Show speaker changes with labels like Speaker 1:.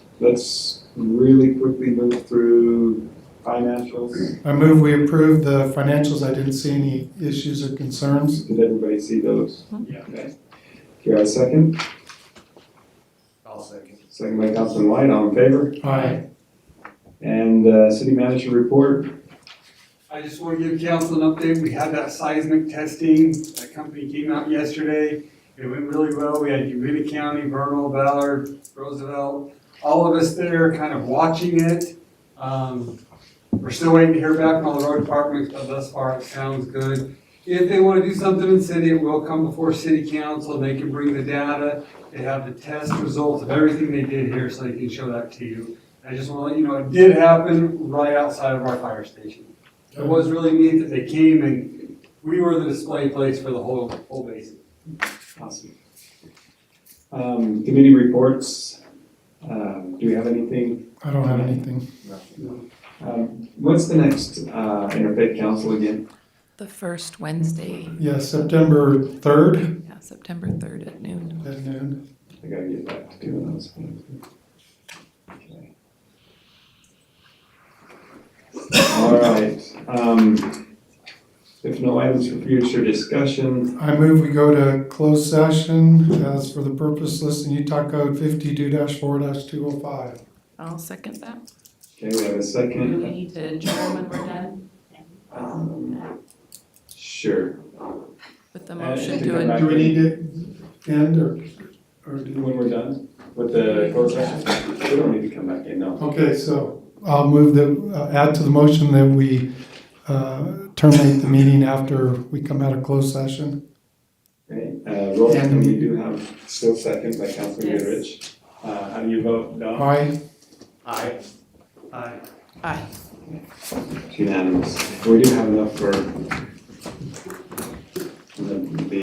Speaker 1: Let's really quickly move through financials.
Speaker 2: I move we approve the financials. I didn't see any issues or concerns.
Speaker 1: Did everybody see those?
Speaker 3: Yeah.
Speaker 1: Okay. Here, I second.
Speaker 3: I'll second.
Speaker 1: Second by Councilman White, all in favor?
Speaker 2: Aye.
Speaker 1: And, uh, city manager report,
Speaker 4: I just want to give council an update. We had that seismic testing. That company came out yesterday. It went really well. We had Uena County, Vernal, Ballard, Roosevelt, all of us there kind of watching it. Um, We're still waiting to hear back from all the road departments, but thus far it sounds good. If they want to do something in city, it will come before city council. They can bring the data. They have the test results of everything they did here, so they can show that to you. I just want to let you know, it did happen right outside of our fire station. It was really neat that they came and we were the display place for the whole, whole basin.
Speaker 1: awesome. Um, committee reports, um, do we have anything?
Speaker 2: I don't have anything.
Speaker 1: Um, what's the next, uh, interfaith council again?
Speaker 5: The first Wednesday,
Speaker 2: Yeah, September third
Speaker 5: yeah, September 3rd at noon.
Speaker 2: at noon.
Speaker 1: I gotta get back to doing those. Okay. All right, um, if no items for future discussion,
Speaker 2: I move we go to closed session as for the purpose listed in Utah Code fifty-two four two oh five.
Speaker 5: I'll second that.
Speaker 1: okay, we have a
Speaker 5: Do
Speaker 1: second.
Speaker 5: we need to adjourn when we're done
Speaker 1: Um, Sure,
Speaker 5: with the
Speaker 1: Uh,
Speaker 5: motion
Speaker 1: to
Speaker 5: to
Speaker 1: go
Speaker 5: adjourn?
Speaker 1: back.
Speaker 2: Do we need to end or, or do
Speaker 1: when we're done with the closed session, we don't need to come back in, no.
Speaker 2: Okay, so I'll move the, uh, add to the motion that we uh, terminate the meeting after we come out of closed session.
Speaker 1: Okay, uh, roll,
Speaker 2: Yeah.
Speaker 1: and we do have still seconds by Councilman
Speaker 5: Yes.
Speaker 1: Goodrich. Uh, how do you vote, Don?
Speaker 2: Aye?
Speaker 3: Aye.
Speaker 4: I
Speaker 5: Aye.
Speaker 1: It's Unanimous. We do have enough for